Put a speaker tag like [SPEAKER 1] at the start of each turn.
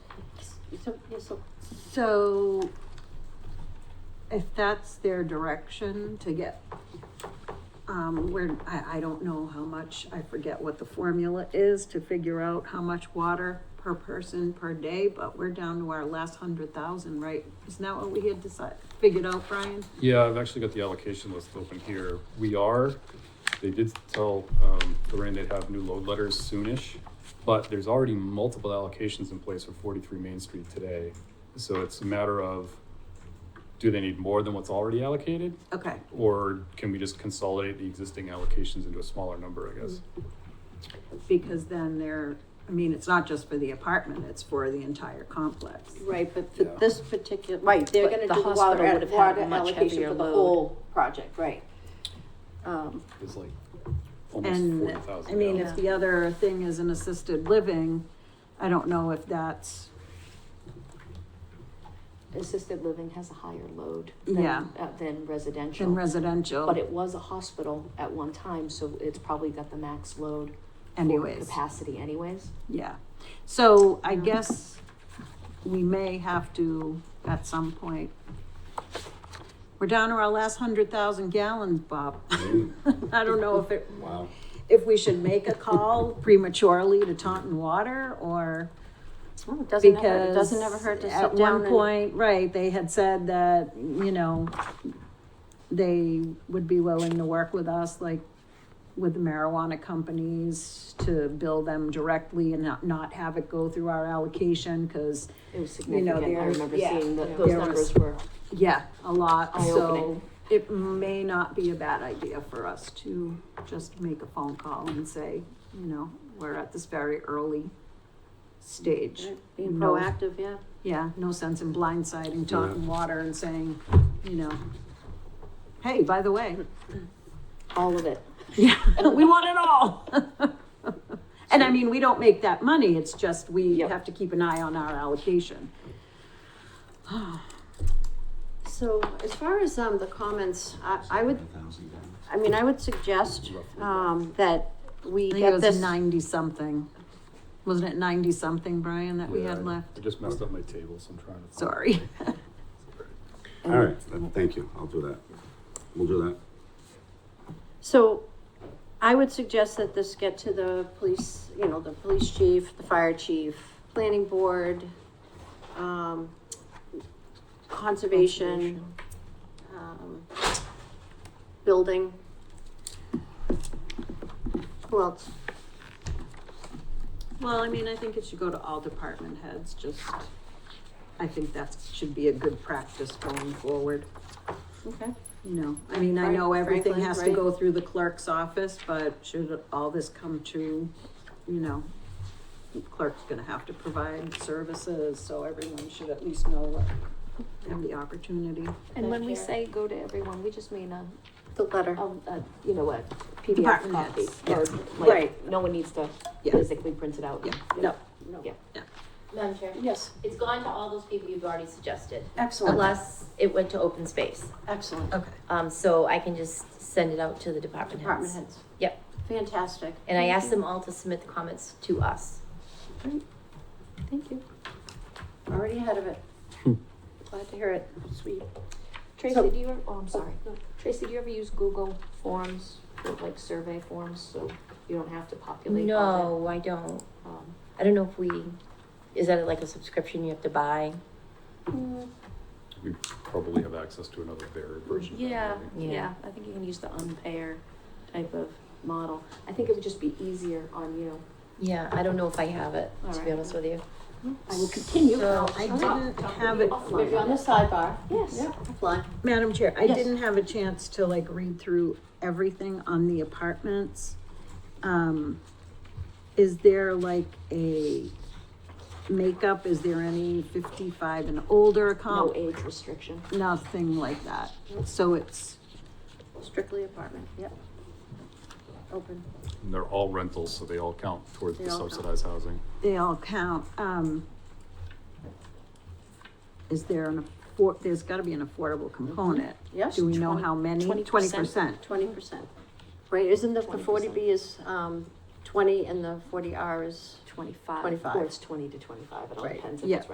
[SPEAKER 1] So this'll,
[SPEAKER 2] So if that's their direction to get, um, where, I, I don't know how much, I forget what the formula is to figure out how much water per person per day, but we're down to our last hundred thousand, right? Isn't that what we had decided, figured out, Brian?
[SPEAKER 3] Yeah, I've actually got the allocation list open here. We are, they did tell, um, Lorraine they'd have new load letters soonish, but there's already multiple allocations in place for forty-three Main Street today. So it's a matter of, do they need more than what's already allocated?
[SPEAKER 2] Okay,
[SPEAKER 3] Or can we just consolidate the existing allocations into a smaller number, I guess?
[SPEAKER 2] because then they're, I mean, it's not just for the apartment, it's for the entire complex.
[SPEAKER 1] right, but for
[SPEAKER 3] Yeah.
[SPEAKER 1] this particular, right, they're
[SPEAKER 4] But
[SPEAKER 1] gonna
[SPEAKER 4] the
[SPEAKER 1] do the
[SPEAKER 4] hospital
[SPEAKER 1] water,
[SPEAKER 4] would
[SPEAKER 1] ad-
[SPEAKER 4] have had
[SPEAKER 1] water
[SPEAKER 4] a much
[SPEAKER 1] allocation
[SPEAKER 4] heavier
[SPEAKER 1] for the
[SPEAKER 4] load.
[SPEAKER 1] whole project, right? Um,
[SPEAKER 3] It's like almost
[SPEAKER 2] And,
[SPEAKER 3] forty thousand.
[SPEAKER 2] I mean, if the other thing is an assisted living, I don't know if that's,
[SPEAKER 4] assisted living has a higher load
[SPEAKER 2] Yeah.
[SPEAKER 4] than, uh, than residential.
[SPEAKER 2] in residential.
[SPEAKER 4] But it was a hospital at one time, so it's probably got the max load for
[SPEAKER 2] anyways,
[SPEAKER 4] capacity anyways.
[SPEAKER 2] yeah. So I
[SPEAKER 4] Yeah.
[SPEAKER 2] guess we may have to, at some point, we're down to our last hundred thousand gallons, Bob. I don't know if it,
[SPEAKER 5] Wow.
[SPEAKER 2] if we should make a call prematurely to Taunton Water or
[SPEAKER 1] well, it doesn't
[SPEAKER 2] because.
[SPEAKER 1] ever, it doesn't ever hurt to sit down
[SPEAKER 2] At one
[SPEAKER 1] and-
[SPEAKER 2] point, right, they had said that, you know, they would be willing to work with us, like with the marijuana companies to bill them directly and not, not have it go through our allocation, cause
[SPEAKER 4] It was
[SPEAKER 2] You know,
[SPEAKER 4] significant. I
[SPEAKER 2] there's-
[SPEAKER 4] remember
[SPEAKER 1] yeah,
[SPEAKER 4] seeing
[SPEAKER 1] yeah.
[SPEAKER 4] that those
[SPEAKER 2] There
[SPEAKER 4] numbers were.
[SPEAKER 2] yeah, a lot, so
[SPEAKER 4] Eye-opening.
[SPEAKER 2] it may not be a bad idea for us to just make a phone call and say, you know, we're at this very early stage.
[SPEAKER 1] Right, Being
[SPEAKER 2] No.
[SPEAKER 1] proactive, yeah.
[SPEAKER 2] Yeah, no sense in blindsiding Taunton Water and saying, you know, hey, by the way,
[SPEAKER 4] All of it.
[SPEAKER 2] we want it all. And I mean, we don't make that money, it's just we
[SPEAKER 4] Yep.
[SPEAKER 2] have to keep an eye on our allocation.
[SPEAKER 1] So as far as, um, the comments, I, I would, I mean, I would suggest,
[SPEAKER 2] Ah,
[SPEAKER 1] um, that we
[SPEAKER 2] I think it
[SPEAKER 1] get
[SPEAKER 2] was
[SPEAKER 1] this.
[SPEAKER 2] ninety-something. Wasn't it ninety-something, Brian, that we had
[SPEAKER 3] I
[SPEAKER 2] left?
[SPEAKER 3] just messed up my table, so I'm trying to. find-
[SPEAKER 2] Sorry.
[SPEAKER 5] All right, th- thank you. I'll do that. We'll do that.
[SPEAKER 1] So I would suggest that this get to the police, you know, the police chief, the fire chief, planning board, um, conservation, um, building. Who else?
[SPEAKER 2] Well, I mean, I think it should go to all department heads, just, I think that should be a good practice going forward.
[SPEAKER 1] Okay.
[SPEAKER 2] You know, I mean, I know
[SPEAKER 1] Frank-
[SPEAKER 2] everything
[SPEAKER 1] Franklin,
[SPEAKER 2] has to
[SPEAKER 1] right?
[SPEAKER 2] go through the clerk's office, but should all this come to, you know, the clerk's gonna have to provide services, so everyone should at least know what, have the opportunity.
[SPEAKER 4] And when we
[SPEAKER 1] Thank you.
[SPEAKER 4] say go to everyone, we just mean a,
[SPEAKER 1] The letter.
[SPEAKER 4] a, a, you know, a PDF
[SPEAKER 2] Department
[SPEAKER 4] copy.
[SPEAKER 2] heads,
[SPEAKER 4] Or
[SPEAKER 2] yes.
[SPEAKER 4] like,
[SPEAKER 2] Right.
[SPEAKER 4] no one needs to
[SPEAKER 2] Yeah.
[SPEAKER 4] physically print it out.
[SPEAKER 2] Yeah,
[SPEAKER 4] You
[SPEAKER 2] no,
[SPEAKER 4] know,
[SPEAKER 6] Madam Chair,
[SPEAKER 1] Yes.
[SPEAKER 6] it's gone to all those people you've already suggested,
[SPEAKER 4] Oh.
[SPEAKER 1] Excellent,
[SPEAKER 6] unless it went to open space.
[SPEAKER 1] excellent.
[SPEAKER 2] okay.
[SPEAKER 6] Um, so I can just send it out to the department
[SPEAKER 1] Department
[SPEAKER 6] heads.
[SPEAKER 1] heads.
[SPEAKER 6] Yep.
[SPEAKER 1] Fantastic.
[SPEAKER 6] And I asked them all to submit the comments to us.
[SPEAKER 1] Thank you. Already ahead of it. Glad to hear it. Sweet. So-
[SPEAKER 4] Tracy, do you, ever- oh, I'm sorry. Tracy, do you ever use Google Forms, for, like survey forms, so you don't have to populate all
[SPEAKER 6] No, I don't.
[SPEAKER 4] that? Um,
[SPEAKER 6] I don't know if we, is that like a subscription you have to buy?
[SPEAKER 3] We probably have access to another varied version. of that,
[SPEAKER 4] Yeah,
[SPEAKER 3] maybe.
[SPEAKER 6] Yeah.
[SPEAKER 4] yeah, I think you can use the unpair type of model. I think it would just be easier on you.
[SPEAKER 6] Yeah, I don't know if I have it,
[SPEAKER 4] All
[SPEAKER 6] to be
[SPEAKER 4] right.
[SPEAKER 6] honest with you.
[SPEAKER 2] I will continue.
[SPEAKER 6] So-
[SPEAKER 2] I didn't have it,
[SPEAKER 1] Maybe on the sidebar.
[SPEAKER 4] Yes.
[SPEAKER 1] Yeah, offline.
[SPEAKER 2] Madam Chair, I
[SPEAKER 1] Yes.
[SPEAKER 2] didn't have a chance to like read through everything on the apartments. Um, is there like a makeup? Is there any fifty-five and older
[SPEAKER 4] No
[SPEAKER 2] comp?
[SPEAKER 4] age restriction.
[SPEAKER 2] Nothing like that. So it's,
[SPEAKER 1] Strictly apartment, yep. Open.
[SPEAKER 3] And they're all rentals, so they all count towards
[SPEAKER 1] They
[SPEAKER 3] the
[SPEAKER 1] all count.
[SPEAKER 3] subsidized housing.
[SPEAKER 2] they all count, um. Is there an affor, there's gotta be an affordable component.
[SPEAKER 1] Yes,
[SPEAKER 2] Do we know how many?
[SPEAKER 4] 20%.
[SPEAKER 2] Twenty percent.
[SPEAKER 1] Twenty percent. Right, isn't the, the forty
[SPEAKER 4] 20%.
[SPEAKER 1] B is, um, twenty and the forty R is
[SPEAKER 4] Twenty-five.
[SPEAKER 1] 25.
[SPEAKER 4] Or it's twenty to twenty-five, it all
[SPEAKER 1] Right.
[SPEAKER 4] depends if
[SPEAKER 2] Yeah.
[SPEAKER 4] it's